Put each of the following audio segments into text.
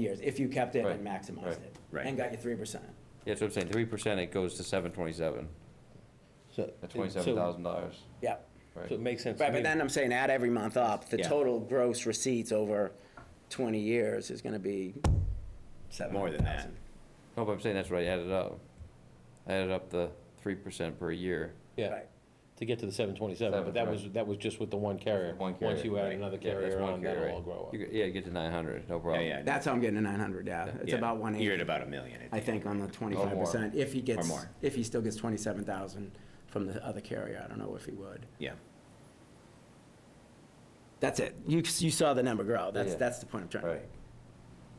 years, if you kept it and Right, maximized right, it. right. And got your three percent. Yeah, that's what I'm saying, three percent, it goes to seven twenty-seven, So- the twenty-seven thousand dollars, Yeah. so- So it right? makes sense to Right, but me. then I'm saying add every month up, the Yeah. total gross receipts over twenty years is gonna be seven More hundred than that. thousand. No, but I'm saying that's what I added up. I added up the three percent per year. Yeah, to get to the seven twenty-seven, but that Seven, was, that was just with the one carrier. One Once carrier, you add right. another Yeah, that's carrier one on, carrier, that'll all right. grow up. You get- Yeah, you get to nine hundred, no Yeah, problem. yeah. That's how I'm getting to nine hundred, yeah. It's yeah. about one You're at eighty, about a million. I think, on the twenty-five percent, if he gets, more. if he still gets twenty-seven thousand from the other carrier, I don't know if he would. Yeah. That's it. You, you saw the number grow. That's, Yeah. that's the point I'm trying to Right. make.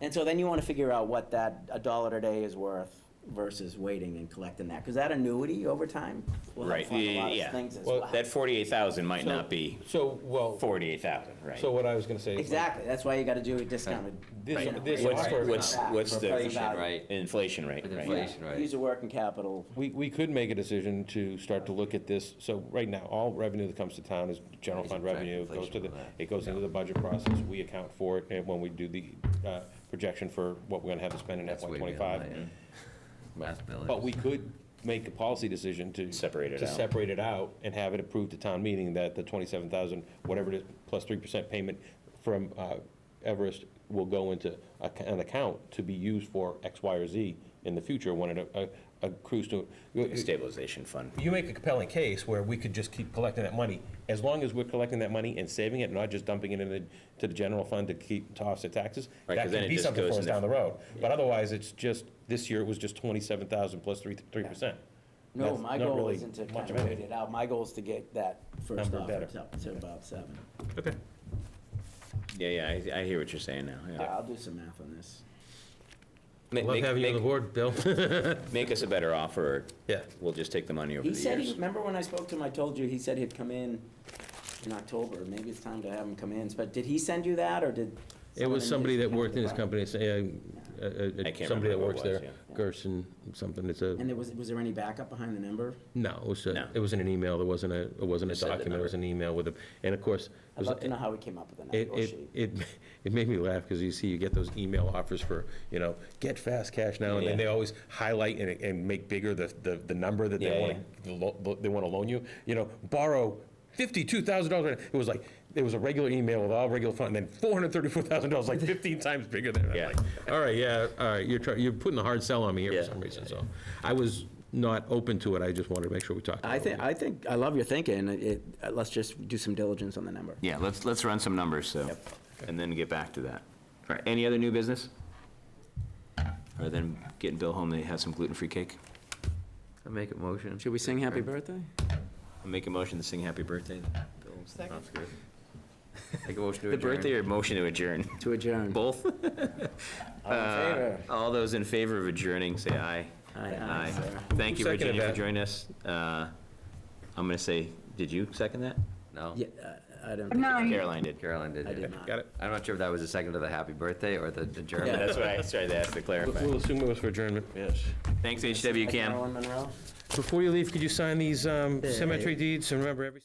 And so then you want to figure out what that, a dollar a day is worth versus waiting and collecting that. Because that annuity over time will help Right, fund a yeah, lot of yeah. things as Well, well. That forty-eight thousand might So- not be So, well, forty-eight thousand, right? so what I was gonna say. is like, Exactly. That's why you got to do a discounted. This- you know, this rate what's- of return what's- back what's for the- present value. Right, Inflation rate, with right? inflation, right. Use the working capital. We, we could make a decision to start to look at this, so right now, all revenue that comes to town is general fund Inflation, revenue, it goes to the, inflation, all that. it goes into the budget process, we account for it, and when we do the, uh, projection for what we're gonna have to spend in That's FY way beyond twenty-five. that, yeah. Last bill, But we could make a policy decision to. Separate it To out. separate it out and have it approved at town meeting that the twenty-seven thousand, whatever it is, plus three percent payment from uh, Everest will go into a- an account to be used for X, Y, or Z in the future when it uh, accrues to. Stabilization fund. You make a compelling case where we could just keep collecting that money, as long as we're collecting that money and saving it, not just dumping it in the, to the general fund to keep, to offset taxes. Right, That 'cause then could it be just something goes for in us the- down the road, but otherwise, it's just, this year it was just twenty-seven thousand plus three, three percent. No, That's my not goal really isn't to much kind of of it. rate it out. My goal is to get that first Number offer better. up to about seven. Okay. Yeah, yeah, I, I hear what you're saying now, yeah. I'll do some math on this. Ma- Love make- having you on the make- board, Bill. Make us a better offer, or Yeah. we'll just take the money over He the said, he- years. remember when I spoke to him, I told you, he said he'd come in in October, maybe it's time to have him come in, but did he send you that, or did? It was somebody that worked in his company, say, uh, uh, I uh, can't somebody remember that who it works was, there, yeah. Gerson, something, it's a, And there was, was there any backup behind the number? no, it was, No. a- it wasn't an email, there wasn't a, it wasn't a Just said the document, it was an number. email with a, and of course, it I'd was, love to it, know how he came up with the number, or it, she. it it made me laugh, because you see, you get those email offers for, you know, get fast cash now, and then Yeah. they always highlight and, and make bigger the, the, the number that Yeah, they want to, they want to loan you, you know, borrow fifty-two thousand dollars, it was like, it was a regular email with all regular fund, and then four hundred thirty-four thousand dollars, like fifteen times bigger than, that. I'm Yeah. like, all right, yeah, all right, you're trying, you're putting a hard sell on me here Yeah. for some reason, so. I was not open to it, I just wanted to make sure we talked about it. I think, I think, I love your thinking, it, uh, let's just do some diligence on the number. Yeah, let's, let's run some numbers, so, and then get back to that. All right, any other new business? Or then getting Bill home, they have some gluten-free cake? I make a motion. Should we sing happy birthday? I'll make a motion to sing happy birthday. Sounds good. Make a motion to The adjourn. birthday or motion to adjourn? To adjourn. Both? All in favor? All those in favor of adjourning, say aye. Aye, aye, sir. Thank you, Who seconded Virginia, for that? joining us. Uh, I'm gonna say, did you second that? No, Yeah, I- I don't think, I Caroline did. Caroline did. did yeah. not. Got it. I'm not sure if that was a second to the happy birthday or the Yeah. adjournment. That's what I tried to ask to clarify. We'll assume it was for adjournment. Yes. Thanks, HW Cam. Marilyn Monroe? Before you leave, could you sign these um, Yeah. cemetery deeds and remember every...